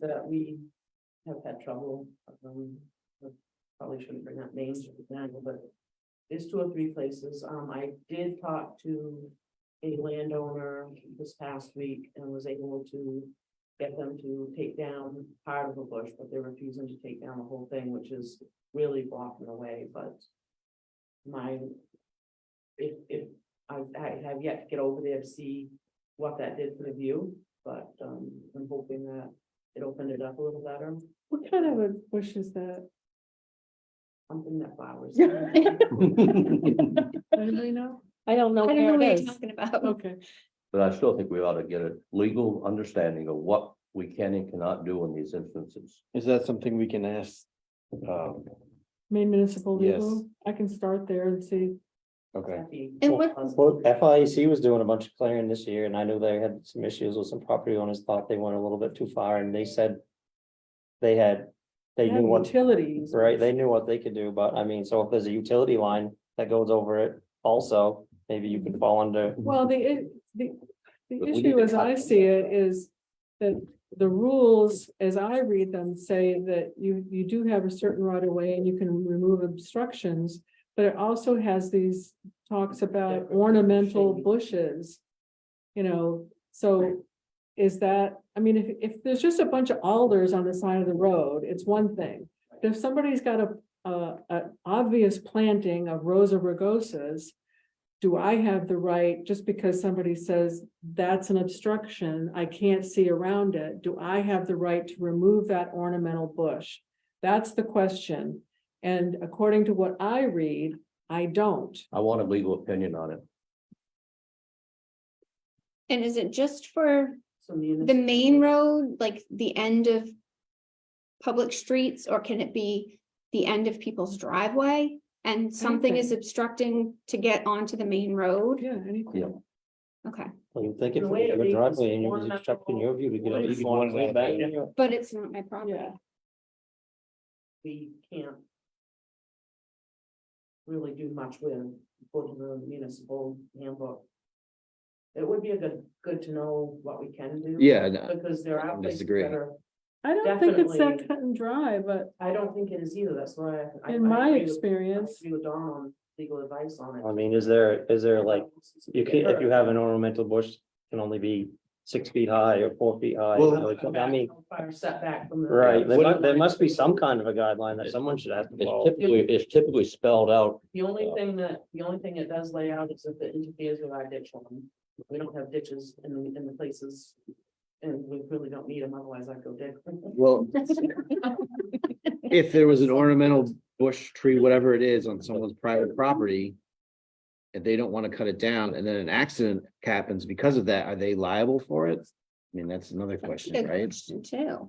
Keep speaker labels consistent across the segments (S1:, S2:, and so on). S1: that we have had trouble, um, I probably shouldn't bring up names or example, but there's two or three places. Um, I did talk to a landowner this past week and was able to get them to take down part of a bush, but they're refusing to take down the whole thing, which is really blocking the way, but my, if, if, I, I have yet to get over there to see what that did for the view, but, um, I'm hoping that it opened it up a little better,
S2: What kind of a bush is that?
S1: something that flowers.
S2: Anybody know?
S3: I don't know
S4: I don't know
S3: where
S4: what
S3: it
S4: you're
S3: is.
S4: talking about.
S2: Okay,
S5: But I still think we ought to get a legal understanding of what we can and cannot do in these instances.
S6: Is that something we can ask? Um,
S2: Maine Municipal
S6: Yes.
S2: Legal. I can start there and see.
S6: okay.
S1: That'd be-
S4: And what,
S6: Well, FIEC was doing a bunch of clearing this year and I know they had some issues with some property owners thought they went a little bit too far and they said. They had, they
S2: Yeah,
S6: knew what,
S2: Utilities.
S6: right, they knew what they could do, but I mean, so if there's a utility line that goes over it also, maybe you could fall under.
S2: Well, the, i- the, the
S5: But we need
S2: issue
S5: to
S2: as
S5: cut
S2: I
S5: them.
S2: see it is that the rules, as I read them, say that you, you do have a certain right of way and you can remove obstructions. But it also has these talks about
S1: Decorative
S2: ornamental
S1: shading.
S2: bushes. You know, so is that, I mean, if, if there's just a bunch of alders on the side of the road, it's one thing. But if somebody's got a, a, a obvious planting of Rosa rugosa's, do I have the right, just because somebody says that's an obstruction, I can't see around it, do I have the right to remove that ornamental bush? That's the question. And according to what I read, I don't.
S5: I want a legal opinion on it.
S4: and is it just for
S1: Some municipal-
S4: the main road, like the end of public streets, or can it be the end of people's driveway? And something is obstructing to get onto the main road?
S2: Yeah,
S5: Yeah.
S2: anything.
S4: Okay,
S6: Well, you think if
S1: The way
S6: you have
S1: they
S6: a driveway and
S1: just
S6: you're obstructing your view to get.
S1: ornamental-
S6: you go on way back in your-
S4: but it's not my property.
S2: Yeah.
S1: we can't really do much with, according to the municipal handbook. It would be a good, good to know what we can do.
S6: Yeah, no,
S1: Because there are
S6: I don't
S1: places
S6: disagree.
S1: that are,
S2: I don't think it's that
S1: Definitely.
S2: cut and dry, but
S1: I don't think it is either, that's why. I- I-
S2: in
S1: I
S2: my
S1: agree with-
S2: experience,
S1: I agree with Dawn on legal advice on it.
S6: I mean, is there, is there like, you can, if you have an ornamental bush, it can only be six feet high or four feet high. you
S5: Well-
S6: know, it's- I mean.
S1: Fire setback from the.
S6: Right, there must, there must be some kind of a guideline that someone should have to
S5: It's
S6: follow.
S5: typically, it's typically spelled out.
S1: The only thing that, the only thing it does lay out is if it interferes with our ditch line. We don't have ditches in, the in the places, and we really don't need them, otherwise I'd go dig.
S7: Well, if there was an ornamental bush, tree, whatever it is on someone's private property. And they don't want to cut it down and then an accident happens because of that, are they liable for it? I mean, that's another question,
S4: Good
S7: right?
S4: question too.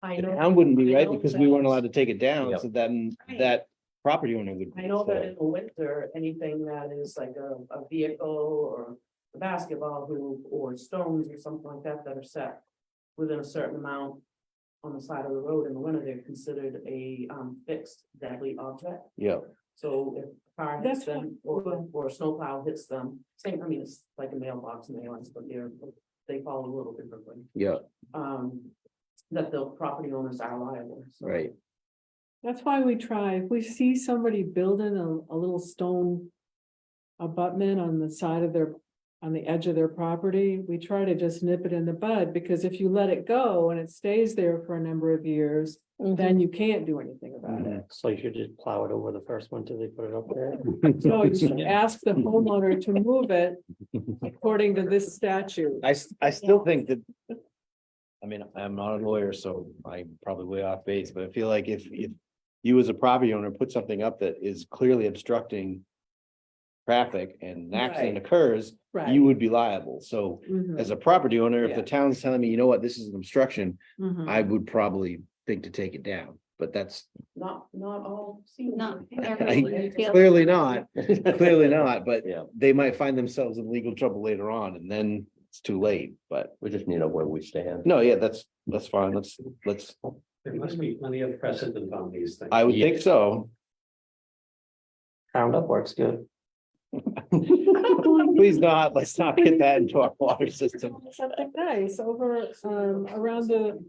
S1: I
S7: The
S1: know.
S7: town wouldn't be
S1: I
S7: right
S1: know
S7: because
S1: that
S7: we weren't
S1: it's-
S7: allowed to take it down,
S5: Yep.
S7: so then
S4: Right.
S7: that property owner would.
S1: I know that
S7: so-
S1: in the winter, anything that is like a, a vehicle or a basketball hoop or stones or something like that that are set within a certain amount on the side of the road in the winter, they're considered a, um, fixed deadly object.
S7: Yeah,
S1: So if a car hits
S2: That's
S1: them or, or a snowplow hits them, same, I mean, it's like a mailbox mailings, but they're, they fall a little differently.
S7: yeah,
S1: Um, that the property owners are liable. so.
S7: right.
S2: that's why we try. If we see somebody building a, a little stone abutment on the side of their, on the edge of their property, we try to just nip it in the bud, because if you let it go and it stays there for a number of years, then you can't do anything about it.
S6: So you should just plow it over the first one till they put it up there.
S2: So you should ask the homeowner to move it according to this statute.
S7: I, s- I still think that. I mean, I'm not a lawyer, so I'm probably way off base, but I feel like if, if you as a property owner put something up that is clearly obstructing. Traffic and an accident
S2: Right.
S7: occurs,
S2: Right.
S7: you would be liable. So
S2: Mhm,
S7: as a property owner, if
S2: Yeah.
S7: the town's telling me, you know what, this is an obstruction,
S2: mhm.
S7: I would probably think to take it down, but that's
S1: Not, not all. seem-
S4: Not
S7: I-
S4: everyone feels-
S7: clearly not, clearly not, but
S5: Yeah.
S7: they might find themselves in legal trouble later on and then it's too late, but
S5: We just need to know where we stand.
S7: no, yeah, that's, that's fine. Let's, let's,
S8: There must be plenty of precedent on these things.
S7: I would think so.
S6: Round up works good.
S7: Please not, let's not get that into our water system.
S2: Something nice over, um, around the